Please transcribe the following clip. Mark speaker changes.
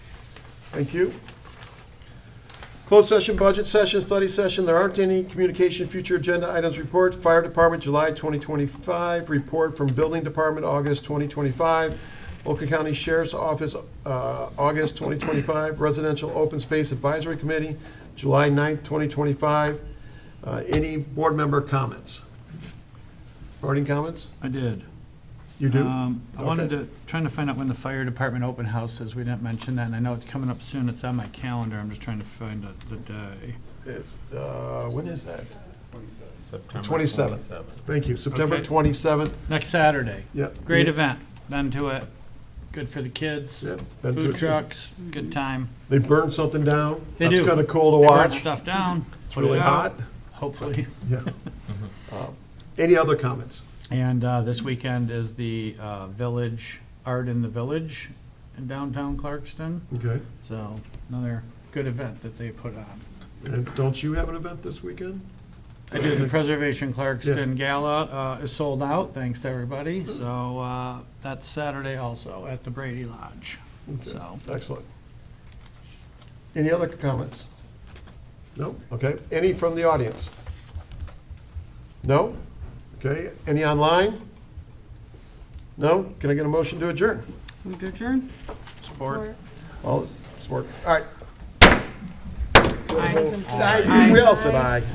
Speaker 1: Thank you. Closed session, budget session, study session. There aren't any communication, future agenda items report. Fire Department, July 2025. Report from Building Department, August 2025. Oakland County Sheriff's Office, uh, August 2025. Residential Open Space Advisory Committee, July 9th, 2025. Uh, Any board member comments? Boarding comments?
Speaker 2: I did.
Speaker 1: You do?
Speaker 2: Um, I wanted
Speaker 1: Okay.
Speaker 2: to, trying to find out when the fire department open house is. We didn't mention that, and I know it's coming up soon. It's on my calendar. I'm just trying to find the- the day.
Speaker 1: It's, uh, When is that?
Speaker 3: September
Speaker 1: 27th. Thank you. September
Speaker 2: Okay.
Speaker 1: 27th.
Speaker 2: Next Saturday.
Speaker 1: Yep.
Speaker 2: Great
Speaker 1: Yeah.
Speaker 2: event. Been to it. Good for the kids.
Speaker 1: Yep, been to
Speaker 2: Food
Speaker 1: it.
Speaker 2: trucks, good time.
Speaker 1: They burn something down.
Speaker 2: They
Speaker 1: That's
Speaker 2: do.
Speaker 1: kind of cool to
Speaker 2: They burn
Speaker 1: watch.
Speaker 2: stuff down.
Speaker 1: It's
Speaker 2: put it
Speaker 1: really hot.
Speaker 2: out, Hopefully.
Speaker 1: Yeah.
Speaker 2: Uh-huh.
Speaker 1: Um, Any other comments?
Speaker 2: And uh, this weekend is the uh, Village, Art in the Village in downtown Clarkston.
Speaker 1: Okay.
Speaker 2: So another good event that they put on.
Speaker 1: And don't you have an event this weekend?
Speaker 2: I do, the Preservation Clarkston Gala uh, is sold out, thanks to everybody, so uh, that's Saturday also at the Brady Lodge, so.
Speaker 1: Excellent. Any other comments? No? Okay. Any from the audience? No? Okay. Any online? No? Can I get a motion to adjourn?
Speaker 2: Move to adjourn? Support.
Speaker 1: All, support. All right.
Speaker 2: Aye.
Speaker 1: Aye. We all said aye.